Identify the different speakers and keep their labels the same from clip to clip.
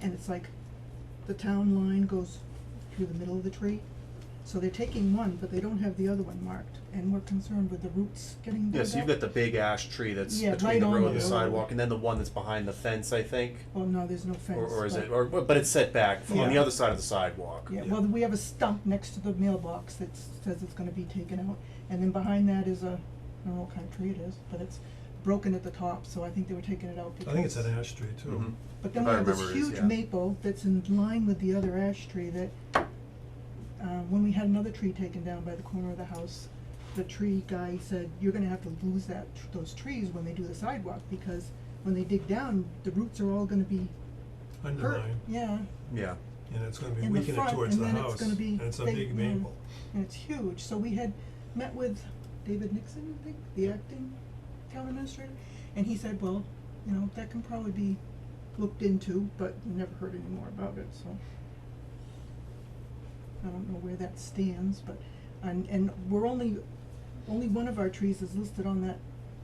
Speaker 1: and it's like, the town line goes through the middle of the tree. So they're taking one, but they don't have the other one marked, and we're concerned with the roots getting dug
Speaker 2: Yeah, so you've
Speaker 1: up.
Speaker 2: got the big ash tree that's
Speaker 1: Yeah,
Speaker 2: between
Speaker 1: right
Speaker 2: the
Speaker 1: on
Speaker 2: road and
Speaker 1: the
Speaker 2: the
Speaker 1: road.
Speaker 2: sidewalk, and then the one that's behind the fence, I think,
Speaker 1: Oh, no, there's no fence.
Speaker 2: or, or is
Speaker 1: but-
Speaker 2: it, or, but it's set back f- on the
Speaker 1: Yeah.
Speaker 2: other side of the sidewalk.
Speaker 1: Yeah, well, we have a stump next to the mailbox that s- says it's gonna be taken out, and then behind that is a, I don't know what kind of tree it is, but it's broken at the top, so I think they were taking it out because.
Speaker 3: I think it's an ash tree
Speaker 2: Mhm.
Speaker 3: too.
Speaker 1: But then
Speaker 2: if
Speaker 1: we
Speaker 2: I
Speaker 1: have this
Speaker 2: remember it is,
Speaker 1: huge
Speaker 2: yeah.
Speaker 1: maple that's in line with the other ash tree that, uh, when we had another tree taken down by the corner of the house, the tree guy said, you're gonna have to lose that, tr- those trees when they do the sidewalk, because when they dig down, the roots are all gonna be hurt,
Speaker 3: Undermine,
Speaker 1: yeah,
Speaker 2: Yeah,
Speaker 3: and it's gonna be
Speaker 1: in the
Speaker 3: weakening
Speaker 1: front,
Speaker 3: towards
Speaker 1: and
Speaker 3: the
Speaker 1: then it's
Speaker 3: house,
Speaker 1: gonna be
Speaker 3: and it's a
Speaker 1: big,
Speaker 3: big
Speaker 1: you know,
Speaker 3: maple.
Speaker 1: and it's huge, so we had met with David Nixon, I think, the acting town administrator, and he said, well, you know, that can probably be looked into, but never heard any more about it, so. I don't know where that stands, but, and, and we're only, only one of our trees is listed on that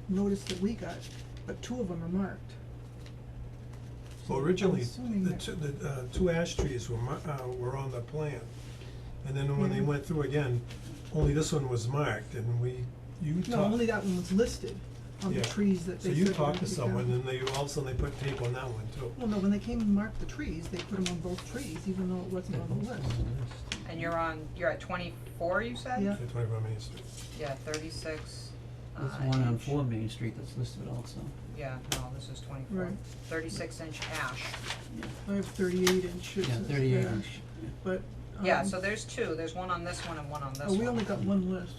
Speaker 1: notice that we got, but two of them are marked.
Speaker 3: Well, originally,
Speaker 1: assuming
Speaker 3: the
Speaker 1: that-
Speaker 3: two, the, uh, two ash trees were mar- uh, were on the plan. And then when they
Speaker 1: Yeah.
Speaker 3: went through again, only this one was marked, and we, you talked.
Speaker 1: No, only that one was listed on the
Speaker 3: Yeah.
Speaker 1: trees that they said.
Speaker 3: So you
Speaker 1: were
Speaker 3: talked to
Speaker 1: gonna be
Speaker 3: someone,
Speaker 1: down.
Speaker 3: and they, all of a sudden they put tape on that one too.
Speaker 1: Well, no, when they came and marked the trees, they put them on both trees, even though it wasn't on the list.
Speaker 4: And you're on, you're at twenty-four, you said?
Speaker 1: Yeah.
Speaker 3: At twenty-four Main Street.
Speaker 4: Yeah, thirty-six, uh,
Speaker 5: There's one on
Speaker 4: inch.
Speaker 5: four Main Street that's listed also.
Speaker 4: Yeah, no, this is twenty-four.
Speaker 1: Right.
Speaker 4: Thirty-six inch ash.
Speaker 1: I have thirty-eight inches.
Speaker 5: Yeah,
Speaker 1: as
Speaker 5: thirty-eight
Speaker 1: well,
Speaker 5: inch.
Speaker 1: But.
Speaker 4: Yeah,
Speaker 1: um,
Speaker 4: so there's two, there's one on this one and one on this
Speaker 1: Oh, we only
Speaker 4: one.
Speaker 1: got one list.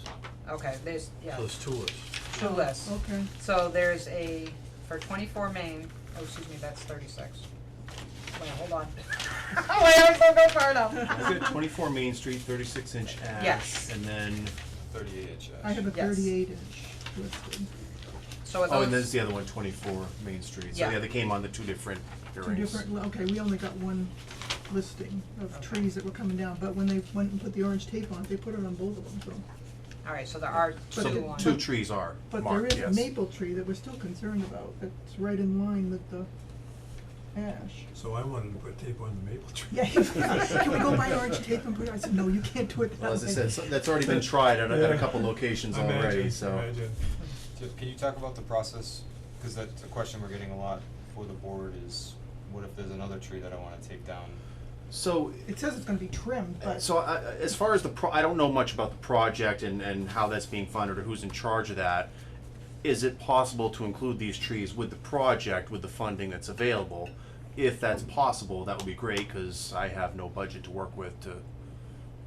Speaker 1: Oh,
Speaker 4: Okay, there's, yeah,
Speaker 6: Those two lists.
Speaker 4: two lists.
Speaker 1: Okay,
Speaker 4: So there's a, for twenty-four Main, oh, excuse me, that's thirty-six. Wait, hold on. Wait, I'm so go far enough.
Speaker 2: I've got twenty-four Main Street, thirty-six inch ash,
Speaker 4: Yes.
Speaker 2: and then,
Speaker 6: Thirty-eight inch
Speaker 1: I have a
Speaker 4: Yes.
Speaker 1: thirty-eight inch listed,
Speaker 4: So are
Speaker 2: oh, and there's
Speaker 4: those,
Speaker 2: the other one, twenty-four Main Street, so
Speaker 4: Yeah.
Speaker 2: yeah, they came on the two different
Speaker 1: two
Speaker 2: hearings.
Speaker 1: different, li- okay, we only got one listing of trees that were coming down, but when they went and put the orange tape on, it, they put it on both of them, so.
Speaker 4: alright, so there are
Speaker 1: But
Speaker 4: two
Speaker 1: it-
Speaker 2: So
Speaker 4: on.
Speaker 2: two trees are
Speaker 1: But there
Speaker 2: marked,
Speaker 1: is
Speaker 2: yes.
Speaker 1: a maple tree that we're still concerned about, that's right in line with the ash.
Speaker 3: So I wanted to put tape on the maple tree.
Speaker 1: Yeah, can we go buy orange tape and put it, I said, no, you can't do it.
Speaker 2: Well, as I
Speaker 1: that way."
Speaker 2: said, so- that's already been tried at, a- at a
Speaker 3: Yeah.
Speaker 2: couple locations already,
Speaker 3: Imagine,
Speaker 2: so.
Speaker 3: imagine.
Speaker 7: So Can you talk about the process, because that's a question we're getting a lot for the board is, what if there's another tree that I wanna take down?
Speaker 2: So
Speaker 1: It says it's gonna be trimmed, but.
Speaker 2: So I, I- as far as the, pro- I don't know much about the project and, and how that's being funded or who's in charge of that. Is it possible to include these trees with the project, with the funding that's available? If that's possible, that would be great, cause I have no budget to work with to,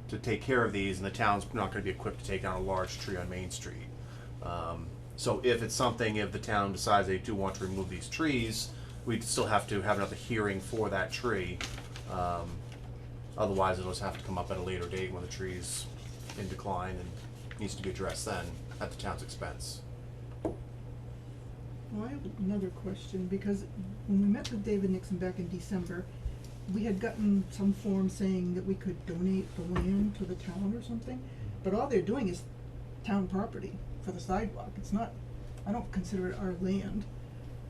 Speaker 2: to take care of these and the town's not gonna be equipped to take down a large tree on Main Street. Um, so if it's something, if the town decides they do want to remove these trees, we'd still have to have another hearing for that tree. Um, Otherwise, it'll just have to come up at a later date when the tree's in decline and needs to be addressed then at the town's expense.
Speaker 1: Well, I have another question, because when we met with David Nixon back in December, we had gotten some form saying that we could donate the land to the town or something, but all they're doing is town property for the sidewalk, it's not, I don't consider it our land.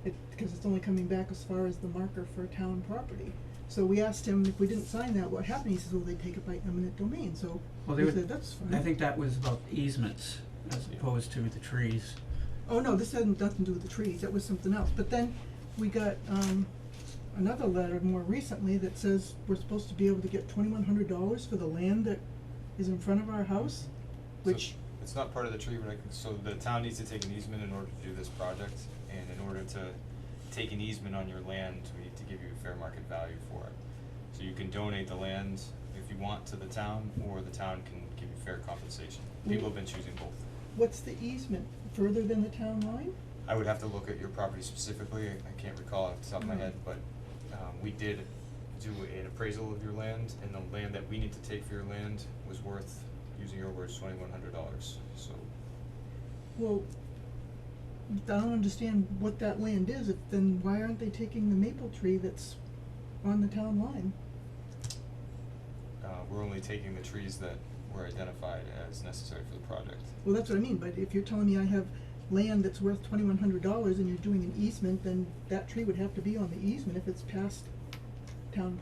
Speaker 1: It, because it's only coming back as far as the marker for town property. So we asked him if we didn't sign that, what happened, he says, well, they take it by eminent domain, so
Speaker 5: Well, they
Speaker 1: we
Speaker 5: were-
Speaker 1: said, that's fine.
Speaker 5: I think that was about easements as opposed to the trees.
Speaker 1: Oh, no, this had nothing to do with the trees, that was something else, but then we got, um, another letter more recently that says we're supposed to be able to get twenty-one hundred dollars for the land that is in front of our house,
Speaker 7: So
Speaker 1: which,
Speaker 7: It's not part of the tree, but I can, so the town needs to take an easement in order to do this project, and in order to take an easement on your land, we need to give you a fair market value for it. So you can donate the land if you want to the town, or the town can give you fair compensation. People have been choosing both.
Speaker 1: what's the easement, further than the town line?
Speaker 7: I would have to look at your property specifically, I I can't recall off the top of my head, but um we did do an appraisal of your land and the land that we need to take for your land was worth, using your words, twenty one hundred dollars, so
Speaker 1: Well, I don't understand what that land is, if, then why aren't they taking the maple tree that's on the town line?
Speaker 7: uh we're only taking the trees that were identified as necessary for the project.
Speaker 1: Well, that's what I mean, but if you're telling me I have land that's worth twenty-one hundred dollars and you're doing an easement, then that tree would have to be on the easement if it's past town